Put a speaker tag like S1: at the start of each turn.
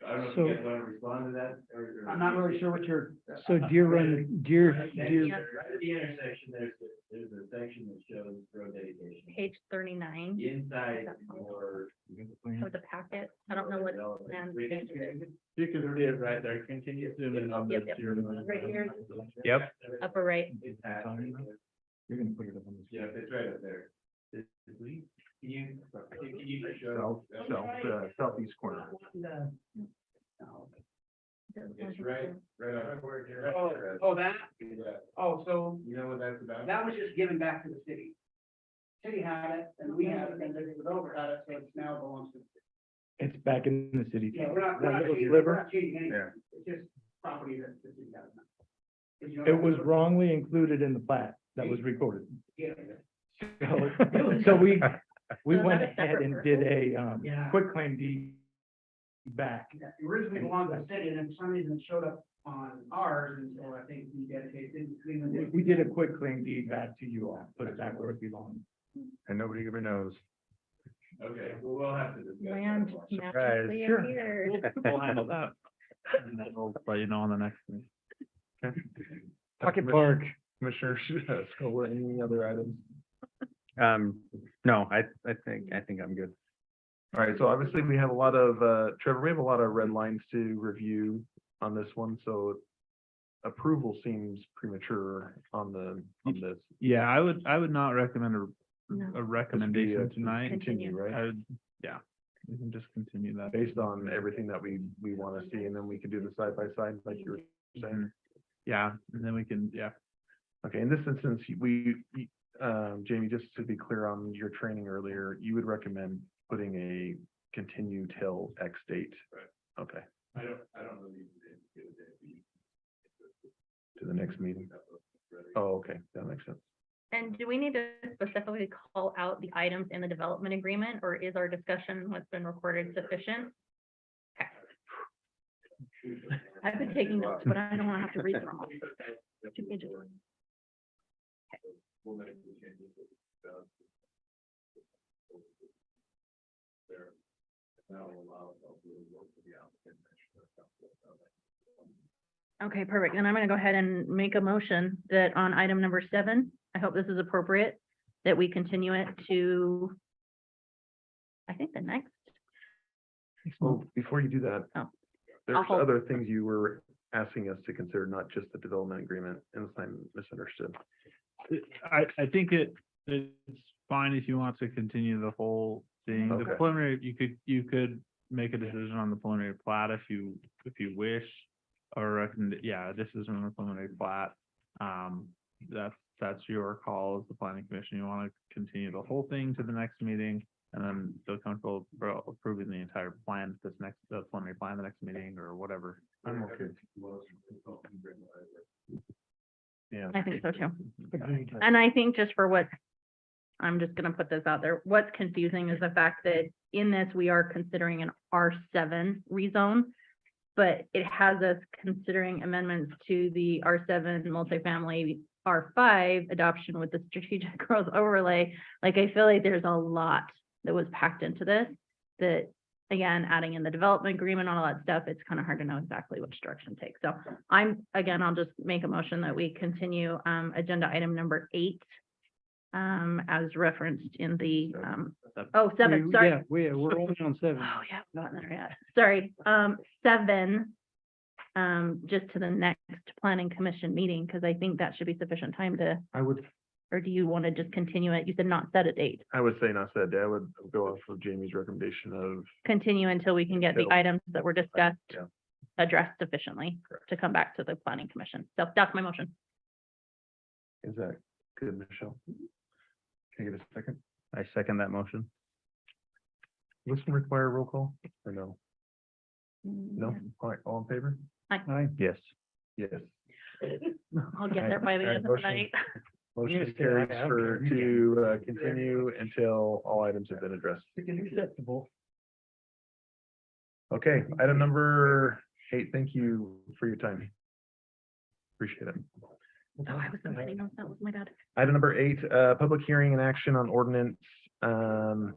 S1: I don't know if
S2: So-
S1: you guys want to respond to that or.
S3: I'm not really sure what you're, uh,
S2: So Deer Run, Deer,
S1: Right
S2: Deer,
S1: at the intersection, there's, the- there's a section that shows road dedication.
S4: page thirty-nine
S1: Inside or.
S4: of the packet. I don't know what, plan.
S1: You can read it right there, continue zooming on
S4: Yep, yep. Right here.
S5: Yep.
S4: upper right,
S1: It's at-
S5: You're gonna put it up on the.
S1: Yeah, it's right up there. Is- is we- Can you, can you show?
S5: South, south, uh, southeast corner.
S1: It's right, right on.
S3: oh, oh, that, oh, so
S1: You know what that's about?
S3: that was just given back to the city. City had it, and we had it, and then the developer had it, so it's now belongs to, the city.
S5: It's back in the city.
S3: yeah, we're not, we're
S5: That
S3: not
S5: little
S3: changing,
S5: sliver?
S3: we're not changing anything.
S5: Yeah.
S3: It's just property that the city got. Did you know
S5: It was
S3: that?
S5: wrongly included in the plat that was recorded.
S3: Yeah.
S5: So so we, we
S4: So
S5: went
S4: that's a
S5: ahead and
S4: separate
S5: did a, um,
S3: Yeah.
S5: quick claim deed back.
S3: that originally belonged to the city, and then for some reason it showed up on ours, and so I think we dedicated, didn't Cleveland.
S5: We
S3: did-
S5: we did a quick claim deed back to you all, put it back where it belonged.
S6: And nobody ever knows.
S1: Okay, well, we'll have to discuss. that
S4: land
S1: one.
S4: magically
S5: Sure.
S4: appeared.
S6: We'll handle that.
S5: And then we'll let you know on the next one.
S6: Pocket Park. Commissioner Scholl, any other items?
S7: Um, no, I, I think, I think I'm good.
S6: All right, so obviously we have a lot of, uh, Trevor, we have a lot of red lines to review on this one, so approval seems premature on the, on this.
S5: Yeah, I would, I would not recommend a,
S4: No.
S5: a
S6: recommendation
S5: tonight.
S6: Continue, right?
S5: would, yeah, we can just continue that.
S6: Based on everything that we, we want to see, and then we can do the side by side like you were saying.
S5: Yeah, and then we can, yeah.
S6: Okay, in this instance, you- we, you- um, Jamie, just to be clear on your training earlier, you would recommend putting a continue till X date?
S1: Right.
S6: Okay,
S1: I don't, I don't really. it's good that we-
S6: to the next meeting.
S1: Right.
S6: Oh, okay, that makes sense.
S4: And do we need to specifically call out the items in the development agreement, or is our discussion what's been recorded sufficient? Okay. I've been taking notes, but I don't want to have to read them all. Two pages.
S1: We'll make the changes that we found. There. That will allow us to uh, really work with the applicant.
S4: Okay, perfect. Then I'm going to go ahead and make a motion that on item number seven, I hope this is appropriate, that we continue it to, I think the next,
S6: Well, before you do
S4: Mm.
S6: that.
S4: Oh. I'll
S6: There's
S4: hold.
S6: other things you were asking us to consider, not just the development agreement, unless I'm misunderstood.
S5: I, I think it, it's fine if you want to continue the whole thing. The
S6: Okay.
S5: preliminary, you could, you could make a decision on the preliminary plat if you, if you wish. Or recommend, yeah, this is on the preliminary plat. Um, that's, that's your call as the planning commission. You want to continue the whole thing to the next meeting. And then feel comfortable appro- approving the entire plan, at this next, the preliminary plan, the next meeting or whatever.
S6: I'm okay.
S5: Yeah. Mm-hmm.
S4: I think so too.
S5: Agreed.
S4: And I think just for what, I'm just gonna put this out there, what's confusing is the fact that in this, we are considering an R seven rezone. But it has us considering amendments to the R seven multifamily, R five adoption with the strategic growth overlay. Like, I feel like there's a lot that was packed into this, that, again, adding in the development agreement, all that stuff, it's kind of hard to know exactly which direction to take. So I'm, again, I'll just make a motion that we continue um agenda item number eight. Um, as referenced in the um, oh, seven, sorry.
S2: yeah, we, we're only on seven.
S4: Oh, yeah, I've gotten there yet. Sorry, um, seven. Um, just to the next planning commission meeting, because I think that should be sufficient time to,
S6: I would,
S4: or do you want to just continue it? You said not set a date.
S6: I would say not that day. I would go off of Jamie's recommendation of
S4: Continue until we can get the
S6: Until-
S4: items that were discussed
S6: Yeah.
S4: addressed sufficiently to come back to the planning commission. So that's my motion.
S6: Is that good, Michelle? Can I get a second?
S7: I second that motion.
S6: Does This one require a roll call or no? No? All right, all in favor?
S7: Yes.
S6: Yes.
S4: I'll get there by the end
S6: Alright,
S4: of the
S6: motion.
S4: night.
S6: Motion
S2: Yes, yeah, I-
S6: carries
S2: I don't
S6: for
S2: care.
S6: to uh, continue until all items have been addressed.
S2: Acceptable.
S6: Okay, item number eight, thank you for your time. Appreciate it.
S4: Oh, I was so many notes. That was my bad.
S6: Item number eight, uh, public hearing and action on ordinance, um,